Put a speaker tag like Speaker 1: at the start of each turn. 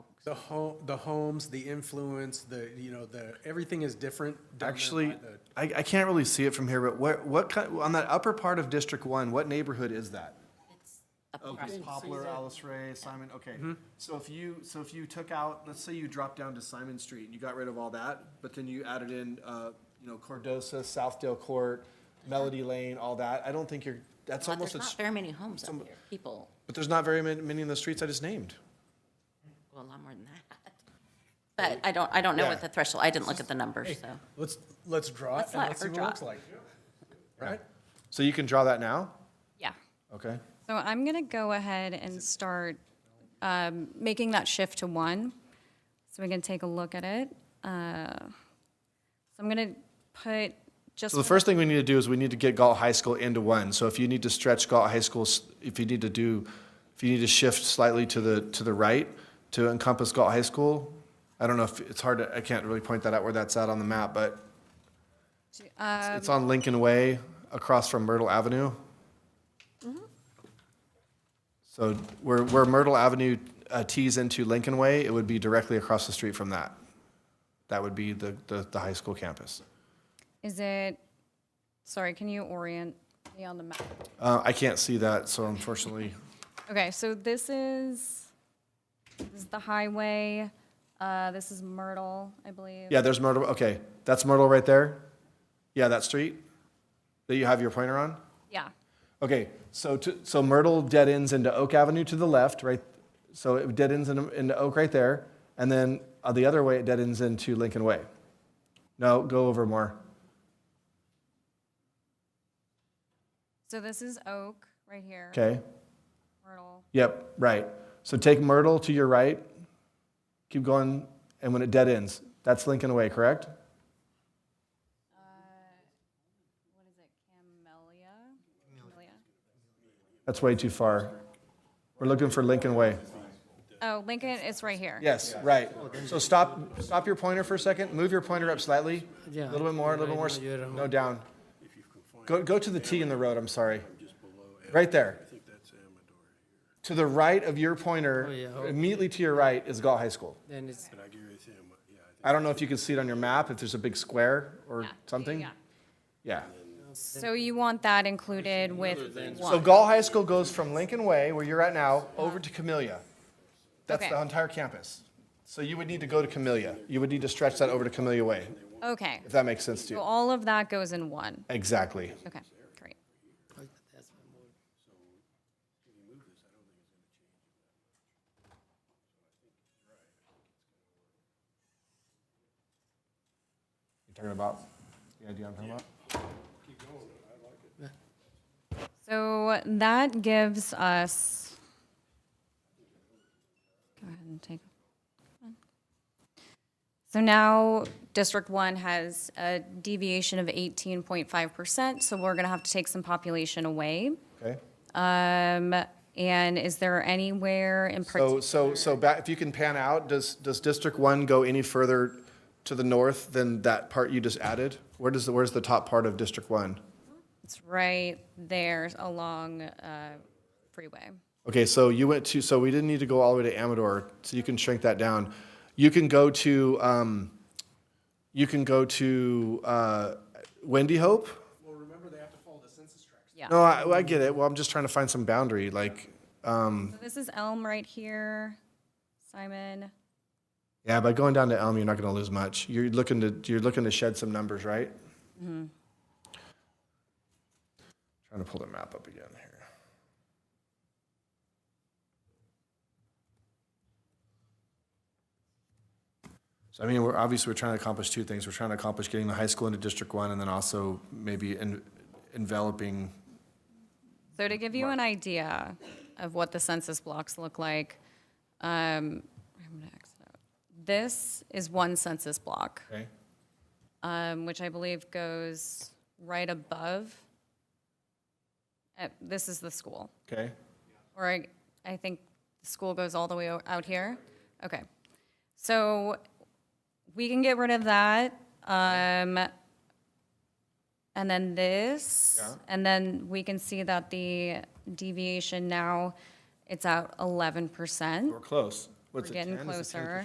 Speaker 1: The home, the homes, the influence, the, you know, the, everything is different. down there by
Speaker 2: Actually,
Speaker 1: the-
Speaker 2: I, I can't really see it from here, but what, what, kind- on that upper part of District One, what neighborhood is that?
Speaker 3: across the
Speaker 2: Poplar, Alice Ray, Simon, okay. So if you, so if you took out, let's say you dropped down to Simon Street and you got rid of all that, but then you added in, uh, you know, Cordosa, Southdale Court, Melody Lane, all that, I don't think you're, that's
Speaker 3: But
Speaker 2: almost,
Speaker 3: there's
Speaker 2: a
Speaker 3: not
Speaker 2: s-
Speaker 3: very many homes up here, people,
Speaker 2: but there's not very many, many in the streets I just named.
Speaker 3: well, a lot more than that. But I don't, I don't know
Speaker 2: Yeah.
Speaker 3: what the threshold, I didn't look at the numbers, so.
Speaker 1: Let's, let's draw it
Speaker 3: Let's
Speaker 1: and
Speaker 3: let
Speaker 1: let's
Speaker 3: her
Speaker 1: see what it
Speaker 3: draw
Speaker 1: looks
Speaker 3: it.
Speaker 1: like. Right?
Speaker 2: So you can draw that now?
Speaker 3: Yeah.
Speaker 2: Okay.
Speaker 4: So I'm going to go ahead and start um, making that shift to one, so we can take a look at it. Uh, So I'm going to put just,
Speaker 2: So the first thing we need to do is we need to get Galt High School into one. So if you need to stretch Galt High School, s- if you need to do, if you need to shift slightly to the, to the right to encompass Galt High School, I don't know if, it's hard to, I can't really point that out where that's at on the map, but it's- it's on Lincoln Way across from Myrtle Avenue. So where, where Myrtle Avenue uh, tees into Lincoln Way, it would be directly across the street from that. That would be the, the, the high school campus.
Speaker 4: is it, sorry, can you orient me on the map?
Speaker 2: Uh, I can't see that, so unfortunately.
Speaker 4: Okay, so this is, this is the highway, uh, this is Myrtle, I believe.
Speaker 2: Yeah, there's Myrtle. Okay, that's Myrtle right there. Yeah, that street that you have your pointer on.
Speaker 4: Yeah,
Speaker 2: Okay, so to, so Myrtle dead ends into Oak Avenue to the left, right? So it dead ends into, into Oak right there, and then uh, the other way it dead ends into Lincoln Way. No, go over more.
Speaker 4: so this is Oak, right here,
Speaker 2: Okay.
Speaker 4: Myrtle.
Speaker 2: Yep. Right. So take Myrtle to your right. Keep going, and when it dead ends, that's Lincoln Way, correct?
Speaker 4: Uh, What is it, Camellia? Camellia?
Speaker 2: That's way too far. We're looking for Lincoln Way.
Speaker 4: Oh, Lincoln, it's right here.
Speaker 2: Yes, right. So stop, stop your pointer for a second, move your pointer up slightly, a
Speaker 5: Yeah,
Speaker 2: little bit more, a little
Speaker 5: right
Speaker 2: more,
Speaker 5: now
Speaker 2: s-
Speaker 5: you're at
Speaker 2: no, down. Go, go to the T in the road, I'm sorry. Right there. To the right of your pointer,
Speaker 5: yeah, oh.
Speaker 2: immediately to your right is Galt High School.
Speaker 5: Then it's,
Speaker 2: I don't know if you can see it on your map, if there's a big square or something.
Speaker 4: yeah.
Speaker 2: Yeah.
Speaker 4: So you want that included with
Speaker 2: So
Speaker 4: one?
Speaker 2: Galt High School goes from Lincoln Way, where you're at now, over to Camellia. That's
Speaker 4: Okay.
Speaker 2: the entire campus. So you would need to go to Camellia. You would need to stretch that over to Camellia Way,
Speaker 4: Okay,
Speaker 2: if that makes sense to
Speaker 4: so
Speaker 2: you.
Speaker 4: all of that goes in one.
Speaker 2: Exactly.
Speaker 4: Okay, great.
Speaker 2: You're talking about, the idea I'm talking about?
Speaker 4: So that gives us. Go ahead and take. So now District One has a deviation of eighteen point five percent, so we're gonna have to take some population away.
Speaker 2: Okay.
Speaker 4: Um, and is there anywhere in
Speaker 2: So,
Speaker 4: particular?
Speaker 2: so, so back, if you can pan out, does, does District One go any further to the north than that part you just added? Where does, the where's the top part of District One?
Speaker 4: It's right there along, uh, freeway.
Speaker 2: Okay, so you went to, so we didn't need to go all the way to Amador, so you can shrink that down. You can go to, um, you can go to, uh, Wendy Hope?
Speaker 1: Well, remember, they have to follow the census tract.
Speaker 2: No, I, I get it. Well, I'm just trying to find some boundary, like,
Speaker 4: So This is Elm right here, Simon.
Speaker 2: Yeah, by going down to Elm, you're not going to lose much. You're looking to you're looking to shed some numbers, right? Trying to pull the map up again here. So I mean, we're obviously we're trying to accomplish two things. We're trying to accomplish getting the high school into District One, and then also maybe en- enveloping.
Speaker 4: So to give you an idea of what the census blocks look like, um, I'm gonna exit out. This is one census block,
Speaker 2: Okay.
Speaker 4: um, which I believe goes right above. Uh, this is the school,
Speaker 2: Okay.
Speaker 4: or I, I think the school goes all the way o- out here. Okay, so we can get rid of that. Um, and then this,
Speaker 2: Yeah.
Speaker 4: and then we can see that the deviation now, it's at eleven percent.
Speaker 2: We're close. What's it,
Speaker 4: We're getting
Speaker 2: 10? Is it 10
Speaker 4: closer.